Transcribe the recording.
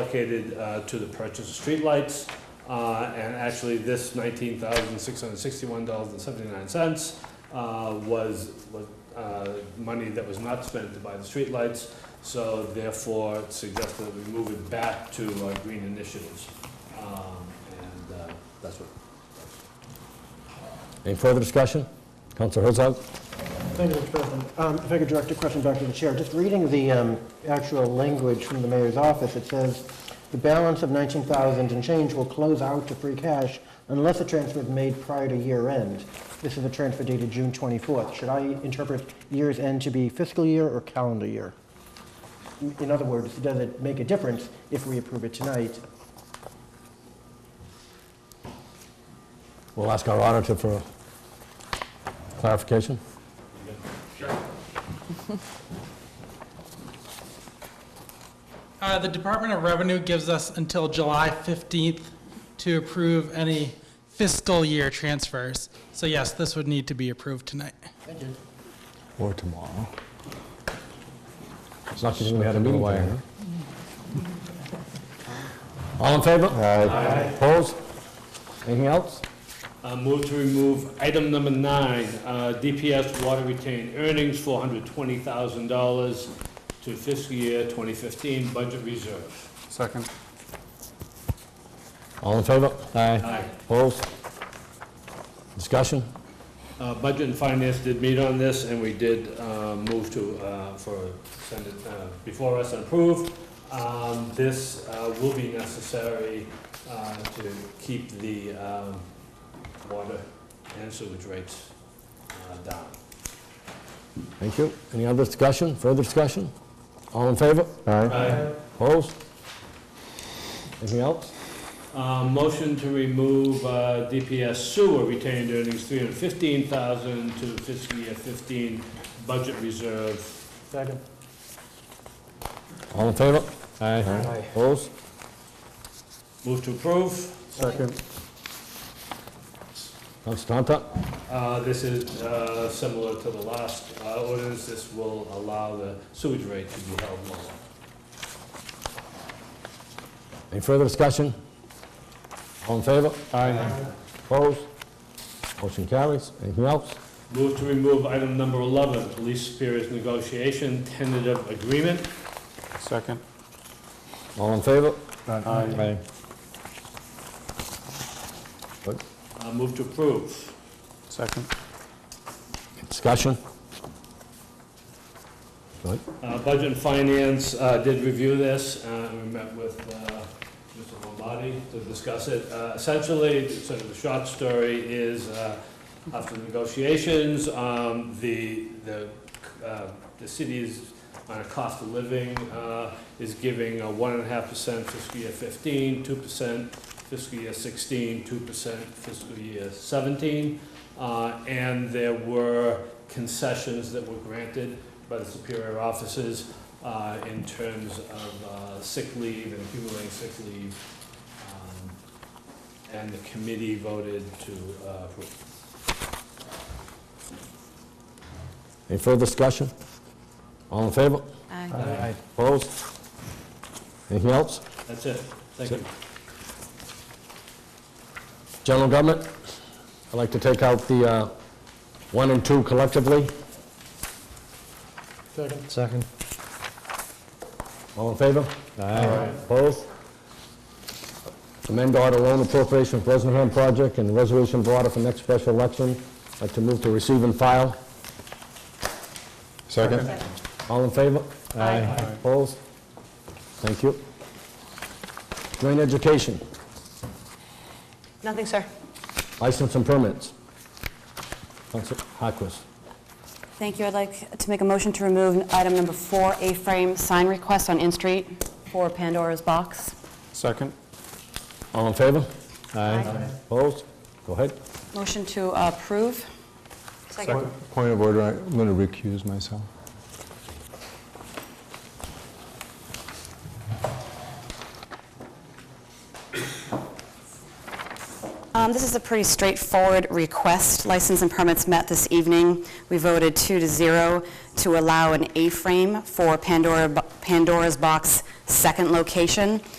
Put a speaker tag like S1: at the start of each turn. S1: allocated uh, to the purchase of streetlights. Uh, And actually, this nineteen thousand, six hundred and sixty-one dollars and seventy-nine cents was, was uh, money that was not spent to buy the streetlights. So therefore, it suggested that we move it back to uh, green initiatives. Um, And uh, that's what,
S2: Any further discussion? Counselor Herzog?
S3: Thank you, Mr. President. Um, If I could direct a question back to the chair. Just reading the um, actual language from the mayor's office, it says, "The balance of 19,000 and change will close out to free cash unless a transfer is made prior to year end." This is a transfer dated June 24th. Should I interpret year's end to be fiscal year or calendar year? In other words, does it make a difference if we approve it tonight?
S2: We'll ask our auditor for clarification.
S4: Uh, The Department of Revenue gives us until July 15th to approve any fiscal year transfers. So yes, this would need to be approved tonight.
S2: Or tomorrow. It's not giving me had a meeting away. All in favor? Aye. Opposed? Anything else?
S1: Uh, Move to remove item number nine, uh, DPS water retained earnings, $420,000 to fiscal year 2015 budget reserve.
S5: Second.
S2: All in favor?
S1: Aye.
S2: Opposed? Discussion?
S1: Uh, Budget and Finance did meet on this, and we did uh, move to, uh, for, send it uh, before us and approve. Um, This uh, will be necessary uh, to keep the um, water and sewage rates uh, down.
S2: Thank you. Any other discussion? Further discussion? All in favor? Aye.
S1: Aye.
S2: Opposed? Anything else?
S1: Uh, Motion to remove uh, DPS sewer retained earnings, 315000 to fiscal year 15 budget reserve.
S3: Second.
S2: All in favor? Aye. Opposed?
S1: Move to approve.
S3: Second.
S2: Counselor Tanta?
S1: Uh, This is uh, similar to the last uh, ordinance. This will allow the sewage rate to be held lower.
S2: Any further discussion? All in favor? Aye. Opposed? Motion carries. Anything else?
S1: Move to remove item number 11, police superiors negotiation tentative agreement.
S5: Second.
S2: All in favor?
S5: Aye.
S2: Aye.
S1: Uh, Move to approve.
S5: Second.
S2: Discussion? Go ahead.
S1: Uh, Budget and Finance uh, did review this, uh, and we met with uh, Mr. Lombardi to discuss it. Uh, Essentially, sort of the short story is, uh, after negotiations, um, the, the uh, the city is, on a cost of living, uh, is giving a one and a half percent fiscal year 15, 2 percent fiscal year 16, 2 percent fiscal year 17. Uh, And there were concessions that were granted by the superior officers uh, in terms of uh, sick leave and accumulating sick leave. Um, And the committee voted to uh, approve.
S2: Any further discussion? All in favor?
S6: Aye.
S2: Opposed? Anything else?
S1: That's it. Thank you.
S2: General government? I'd like to take out the uh, one and two collectively.
S3: Second.
S2: Second. All in favor? Aye. Opposed? Amend order loan appropriation for Rosenham project and resolution of order for next special election. I'd Like to move to receive and file. Second. All in favor? Aye. Opposed? Thank you. Joint education,
S6: Nothing, sir.
S2: license and permits. Counselor Harquist.
S6: Thank you. I'd like to make a motion to remove item number four, A-frame sign request on In Street for Pandora's Box.
S5: Second.
S2: All in favor?
S6: Aye.
S2: Opposed? Go ahead.
S6: Motion to approve. Second.
S7: Point of order, I'm going to recuse myself.
S6: Um, This is a pretty straightforward request. License and permits met this evening. We voted two to zero to allow an A-frame for Pandora, Bo- Pandora's Box second location.